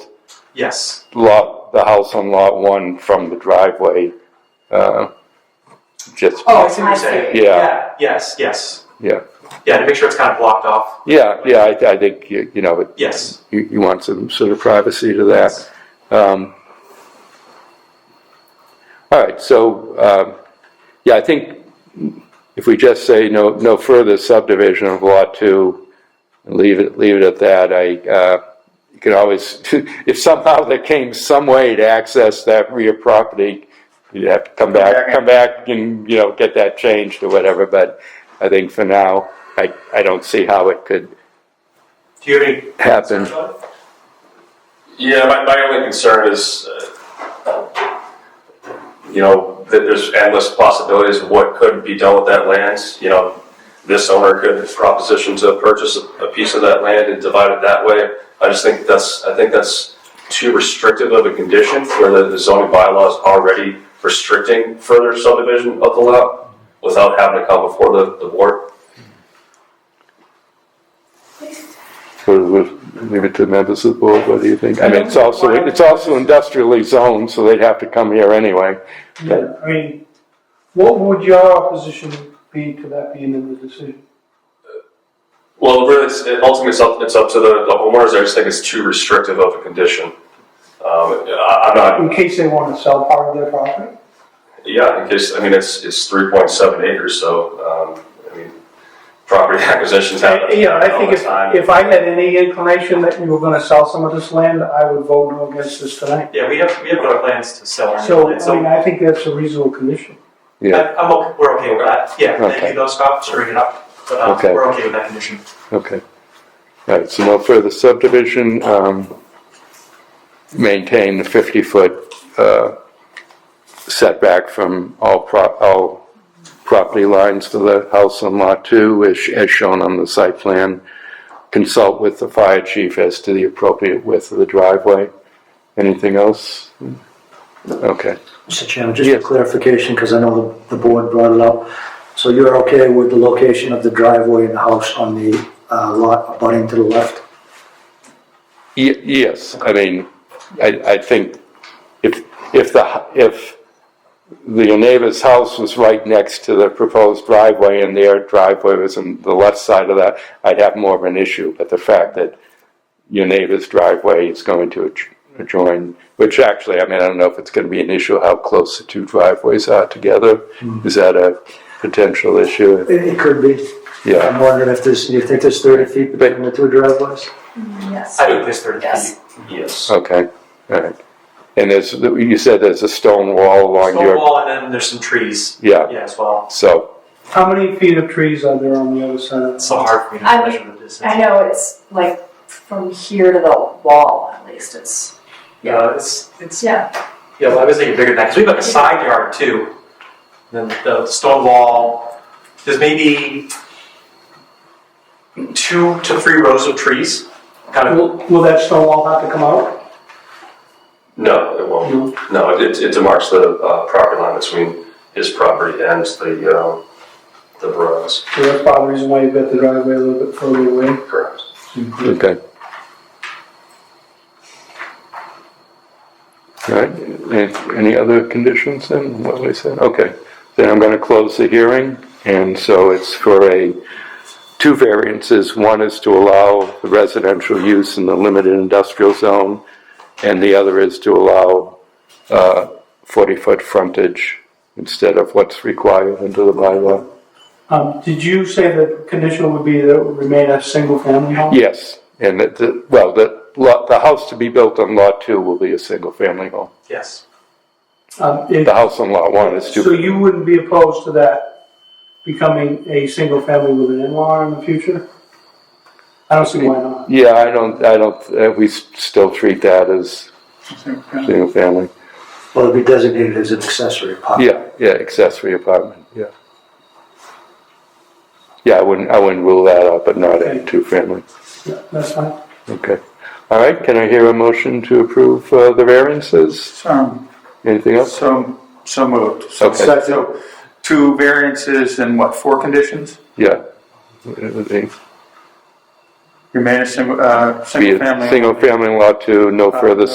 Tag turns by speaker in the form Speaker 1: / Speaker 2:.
Speaker 1: Yes,
Speaker 2: lot, the house on lot one from the driveway, uh, just,
Speaker 1: oh, I see what
Speaker 3: I
Speaker 1: you're
Speaker 3: see.
Speaker 1: saying.
Speaker 2: Yeah.
Speaker 1: Yes, yes,
Speaker 2: yeah.
Speaker 1: yeah, to make sure it's kind of blocked off,
Speaker 2: Yeah, yeah, I, I think, you you know, it-
Speaker 1: yes.
Speaker 2: you, you want some sort of privacy to that. Um, All right, so, um, yeah, I think if we just say no, no further subdivision of Lot 2, and leave it, leave it at that, I, uh, you can always, if somehow there came some way to access that rear property, you'd have to come
Speaker 4: back
Speaker 2: back,
Speaker 4: and-
Speaker 2: come back and, you know, get that changed or whatever, but I think for now, I, I don't see how it could
Speaker 1: Do you have any?
Speaker 2: happen.
Speaker 1: concerns about it?
Speaker 4: Yeah, my, my only concern is, uh, you know, that there's endless possibilities of what could be done with that land. You know, this owner could proposition to purchase a, a piece of that land and divide it that way. I just think that's, I think that's too restrictive of a condition where the- the zoning bylaws already restricting further subdivision of the lot without having to come before the, the board.
Speaker 2: So we'll leave it to members of the board, what do you think? I mean, it's also, it's also industrially zoned, so they'd have to come here anyway.
Speaker 5: Yeah, I mean, what would your opposition be to that being in the decision?
Speaker 4: Well, really, it's, it ultimately, it's up, it's up to the, the homeowners. I just think it's too restrictive of a condition. Um, I, I'm not,
Speaker 5: In case they want to sell part of their property?
Speaker 4: Yeah, in case, I mean, it's, it's three point seven acres, so, um, I mean, property acquisitions happen.
Speaker 5: Uh, Yeah, I think
Speaker 4: all the
Speaker 5: if,
Speaker 4: time.
Speaker 5: if I had any inclination that you were gonna sell some of this land, I would vote no against this tonight.
Speaker 1: Yeah, we have, we have other plans to sell. our
Speaker 5: So,
Speaker 1: land,
Speaker 5: I mean, I think that's a reasonable condition.
Speaker 2: Yeah,
Speaker 1: I- I'm, okay- we're okay with that, yeah,
Speaker 2: Okay.
Speaker 1: maybe those cops bring it up, but, um,
Speaker 2: Okay.
Speaker 1: we're okay with that condition.
Speaker 2: okay. All right, so no further subdivision, um, maintain the fifty-foot, uh, setback from all prop, all property lines to the house on lot two, as, as shown on the site plan. Consult with the fire chief as to the appropriate width of the driveway. Anything else? Okay.
Speaker 6: Mr. Chairman, just for
Speaker 2: Yes.
Speaker 6: clarification, because I know the, the board brought it up. So you're okay with the location of the driveway and the house on the uh, lot abutting to the left?
Speaker 2: Ye- Yes, I mean, I, I think if, if the, hu- if the neighbor's house was right next to the proposed driveway and their driveway was on the left side of that, I'd have more of an issue, but the fact that your neighbor's driveway is going to adj- adjoin, which actually, I mean, I don't know if it's gonna be an issue how close the two driveways are together. Is that a potential issue?
Speaker 6: It, it could be.
Speaker 2: Yeah,
Speaker 6: I'm wondering if there's, do you think there's 30 feet between the two driveways?
Speaker 3: Yes.
Speaker 1: I think this thirty
Speaker 3: Yes.
Speaker 1: feet.
Speaker 4: Yes.
Speaker 2: okay, all right. And there's, you said there's a stone wall along
Speaker 1: Stone
Speaker 2: your
Speaker 1: wall, and then there's some trees,
Speaker 2: Yeah,
Speaker 1: yeah, as well,
Speaker 2: so,
Speaker 5: How many feet of trees are there on the other side of
Speaker 1: it's
Speaker 5: the
Speaker 1: so hard for me to
Speaker 3: I
Speaker 1: measure the distance.
Speaker 3: I know it's like from here to the wall at least it's
Speaker 1: Yeah, it's, it's,
Speaker 3: yeah.
Speaker 1: yeah, well, I was thinking bigger than that, because we have like a side yard too. Then the stone wall, there's maybe two to three rows of trees, kind of,
Speaker 5: Will, will that stone wall have to come out?
Speaker 4: No, it won't. No, it, it demarks the, uh, property line between his property and the, um, the roads.
Speaker 5: So that's probably the reason why you've got the driveway a little bit further away.
Speaker 4: Correct.
Speaker 2: okay. All right, a- any other conditions then, what we said? Okay, then I'm gonna close the hearing, and so it's for a, two variances. One is to allow the residential use in the limited industrial zone, and the other is to allow, uh, forty-foot frontage instead of what's required under the bylaw.
Speaker 5: Um, did you say the condition would be that it would remain a single family home?
Speaker 2: Yes, and the- the, well, the lot, the house to be built on lot two will be a single-family home.
Speaker 1: yes.
Speaker 5: Um, it-
Speaker 2: The house on lot one is
Speaker 5: So
Speaker 2: two,
Speaker 5: you wouldn't be opposed to that becoming a single family with an in-law in the future? I don't see why not.
Speaker 2: yeah, I don't, I don't, uh, we s- still treat that as single-family.
Speaker 6: Well, it'd be designated as an accessory apartment.
Speaker 2: Yeah, yeah, accessory apartment, yeah. Yeah, I wouldn't, I wouldn't rule that out, but not a
Speaker 5: Okay.
Speaker 2: two-family,
Speaker 5: Yeah, That's fine.
Speaker 2: okay. All right, can I hear a motion to approve uh, the variances?
Speaker 7: So,
Speaker 2: Anything else?
Speaker 7: so, so moved. So-
Speaker 2: Okay.
Speaker 7: So, two variances and what, four conditions?
Speaker 2: Yeah. It would be-
Speaker 7: You made a single, uh,
Speaker 2: Be
Speaker 7: single
Speaker 2: a
Speaker 7: family.
Speaker 2: single-family lot two, no further